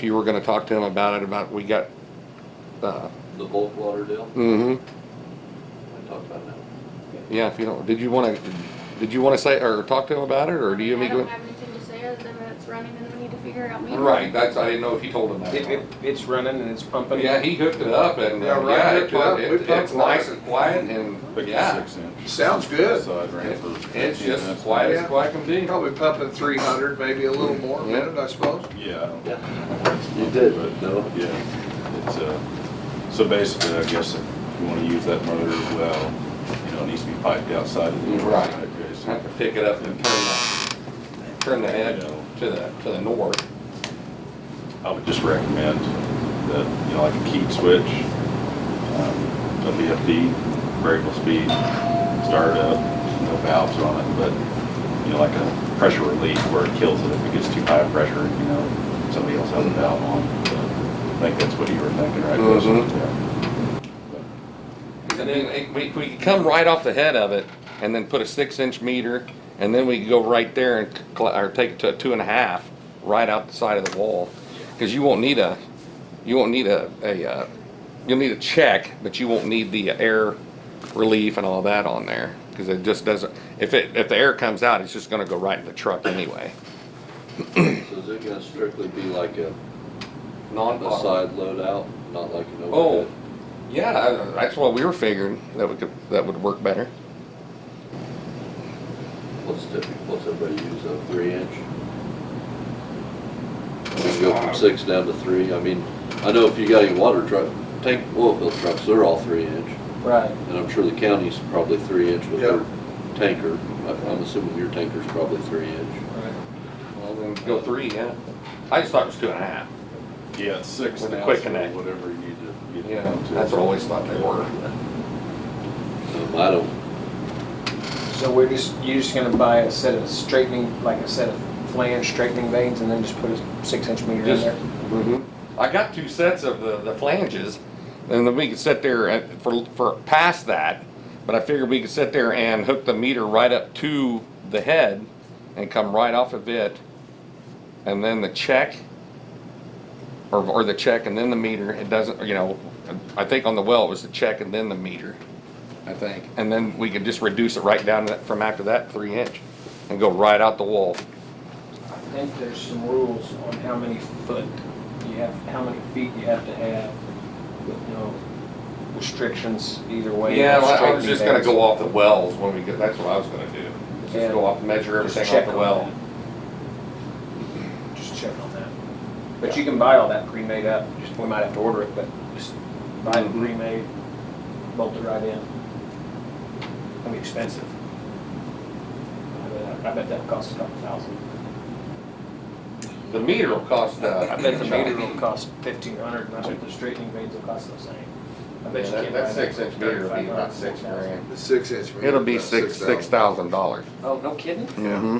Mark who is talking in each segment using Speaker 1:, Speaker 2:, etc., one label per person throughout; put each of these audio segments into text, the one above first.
Speaker 1: If you were gonna talk to him about it, about, we got, uh,
Speaker 2: The bulk water deal,
Speaker 1: mm-hmm,
Speaker 2: I talked about that.
Speaker 1: yeah, if you don't, did you wanna, did you wanna say, or talk to him about it, or do you? want
Speaker 3: I
Speaker 1: me to
Speaker 3: don't
Speaker 1: go-
Speaker 3: have anything to say other than that it's running and we need to figure out meter.
Speaker 1: Right, that's, I didn't know if you told him that.
Speaker 4: It, it, it's running and it's pumping.
Speaker 1: Yeah, he hooked it up and,
Speaker 5: Yeah,
Speaker 1: uh,
Speaker 5: right,
Speaker 1: yeah,
Speaker 5: we
Speaker 1: it-
Speaker 5: pumped- we
Speaker 1: it- it's
Speaker 5: pumped
Speaker 1: nice
Speaker 5: water.
Speaker 1: and quiet and, yeah.
Speaker 6: Six inch.
Speaker 5: Sounds good.
Speaker 6: Side ramp
Speaker 1: It-
Speaker 6: for
Speaker 1: It's
Speaker 6: 15,
Speaker 1: just
Speaker 6: that's
Speaker 1: quiet as
Speaker 5: nice.
Speaker 1: quiet can be.
Speaker 5: Probably pumping three hundred, maybe a little more a
Speaker 1: Yeah.
Speaker 5: minute, I suppose.
Speaker 6: Yeah, I don't know,
Speaker 2: You did, but no.
Speaker 6: yeah, it's, uh, so basically, I guess if you wanna use that mother well, you know, it needs to be piped outside of the.
Speaker 1: Right.
Speaker 6: Okay, so-
Speaker 1: Have to pick it up and turn the, turn the head to the, to the north.
Speaker 6: I would just recommend that, you know, like a keyed switch, um, a VFD, variable speed, start up, no valves on it, but, you know, like a pressure relief where it kills it if it gets too high of pressure, you know, somebody else has a valve on. I think that's what you were thinking, right? Chris?
Speaker 1: Mhm.
Speaker 6: Yeah.
Speaker 1: And then it- we, we could come right off the head of it and then put a six inch meter and then we could go right there and, cl- or take to two and a half, right out the side of the wall. Cause you won't need a, you won't need a, a, uh, you'll need a check, but you won't need the air relief and all that on there. Cause it just doesn't, if it, if the air comes out, it's just gonna go right in the truck anyway.
Speaker 2: So is it gonna strictly be like a, a
Speaker 1: Non-side.
Speaker 2: side load out, not like an
Speaker 1: Oh,
Speaker 2: overhead?
Speaker 1: yeah, I- that's what we were figuring, that would, that would work better.
Speaker 2: What's typical, what's everybody use, a three inch? We can go from six down to three, I mean, I know if you got your water truck, tank oil field trucks, they're all three inch.
Speaker 4: Right.
Speaker 2: And I'm sure the county's probably three inch with
Speaker 5: Yeah.
Speaker 2: their tanker, I- I'm assuming your tanker's probably three inch.
Speaker 1: Well, then go three, yeah. I just thought it was two and a half.
Speaker 6: Yeah, it's six
Speaker 1: With
Speaker 6: now,
Speaker 1: the
Speaker 6: so
Speaker 1: quick connect.
Speaker 6: whatever you need to. get
Speaker 1: Yeah,
Speaker 6: down to.
Speaker 1: that's what I always thought they were.
Speaker 2: Um, I don't,
Speaker 4: So we're just, you're just gonna buy a set of straightening, like a set of flange straightening veins and then just put a six inch meter in
Speaker 1: Just-
Speaker 4: there?
Speaker 1: I got two sets of the, the flanges, and then we could sit there at- for, for past that, but I figured we could sit there and hook the meter right up to the head and come right off of it, and then the check, or, or the check and then the meter, it doesn't, you know, I think on the well, it was the check and then the meter, I think, and then we could just reduce it right down to that- from after that, three inch, and go right out the wall.
Speaker 4: I think there's some rules on how many foot you have, how many feet you have to have with no restrictions either way.
Speaker 1: Yeah, well, I was just gonna go
Speaker 4: Straightening
Speaker 1: off the wells when we get, that's what I was gonna do. Just
Speaker 4: Yeah.
Speaker 1: go off, measure
Speaker 4: veins.
Speaker 1: everything
Speaker 4: Just
Speaker 1: off
Speaker 4: check
Speaker 1: the
Speaker 4: on
Speaker 1: well.
Speaker 4: that. Just check on that. But you can buy all that pre-made up, just, we might have to order it, but just buy it
Speaker 1: Mhm.
Speaker 4: pre-made, bolt it right in. It'll be expensive. I bet- I bet that costs a couple thousand.
Speaker 1: The meter will cost, uh.
Speaker 4: I bet the meter will cost fifteen hundred, and I bet the straightening blades will cost the same. I bet you
Speaker 1: Yeah, that-
Speaker 4: can't
Speaker 1: that
Speaker 4: buy
Speaker 1: six inch
Speaker 4: for
Speaker 1: meter will be
Speaker 4: 3,500,
Speaker 1: about six
Speaker 4: 4,000.
Speaker 1: grand.
Speaker 5: The six inch. meter,
Speaker 1: It'll be
Speaker 5: about
Speaker 1: six, six
Speaker 5: 6,000.
Speaker 1: thousand dollars.
Speaker 4: Oh, no kidding?
Speaker 1: Mm-hmm.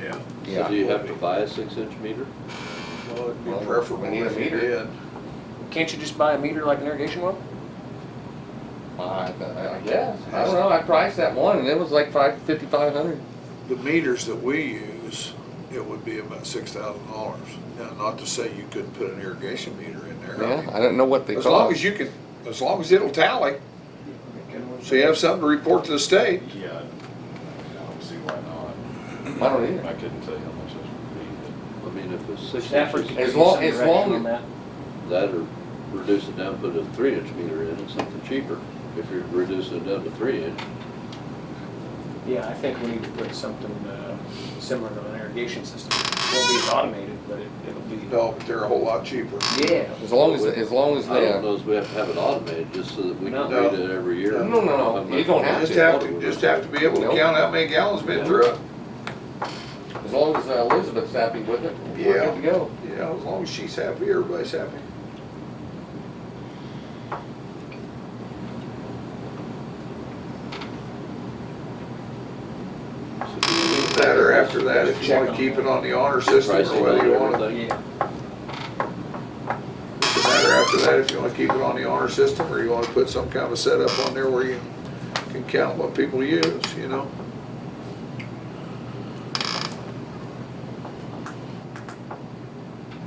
Speaker 5: Yeah.
Speaker 2: so
Speaker 1: Yeah.
Speaker 2: do you have to buy a six inch meter?
Speaker 5: Well, it'd be
Speaker 1: Well, we
Speaker 5: preferable
Speaker 1: need a
Speaker 5: if you
Speaker 1: meter.
Speaker 5: did.
Speaker 4: Can't you just buy a meter like an irrigation well?
Speaker 1: I, uh, I guess, I don't know, I priced that one and it was like five, fifty-five hundred.
Speaker 5: The meters that we use, it would be about six thousand dollars. Now, not to say you couldn't put an irrigation meter in there. I
Speaker 1: Yeah,
Speaker 5: mean,
Speaker 1: I didn't know what they
Speaker 5: As long
Speaker 1: cost.
Speaker 5: as you can, as long as it'll tally, so you have something to report to the state.
Speaker 6: Yeah, I don't see why not.
Speaker 1: I don't either.
Speaker 6: I couldn't tell you how much this would be, but.
Speaker 2: I mean, if it's six
Speaker 4: Stafford could
Speaker 1: As
Speaker 2: inches,
Speaker 4: give you
Speaker 1: long-
Speaker 4: some
Speaker 1: as
Speaker 4: direction
Speaker 1: long-
Speaker 4: on that.
Speaker 2: that or reduce it down, put a three inch meter in, it's something cheaper. If you're reducing it down to three inch,
Speaker 4: Yeah, I think we need to put something, uh, similar to an irrigation system. It won't be as automated, but it, it'll be.
Speaker 5: No, but they're a whole lot cheaper.
Speaker 4: Yeah.
Speaker 1: As long as, as long as
Speaker 2: I
Speaker 1: they,
Speaker 2: don't
Speaker 1: uh,
Speaker 2: know if we have to have it automated, just so that we can
Speaker 4: No.
Speaker 2: read it every year.
Speaker 1: No, no, no, you don't have
Speaker 5: Just have to, just have to be able to count how many gallons been through it.
Speaker 1: as long as uh, Elizabeth's happy with it, we're
Speaker 5: Yeah.
Speaker 1: good to go.
Speaker 5: Yeah, as long as she's happy, everybody's happy. Matter after that, if you wanna keep it on the honor system
Speaker 2: Pricing
Speaker 5: or whether you
Speaker 2: on
Speaker 5: wanna,
Speaker 2: everything.
Speaker 4: Yeah,
Speaker 5: matter after that, if you wanna keep it on the honor system or you wanna put some kind of a setup on there where you can count what people use, you know?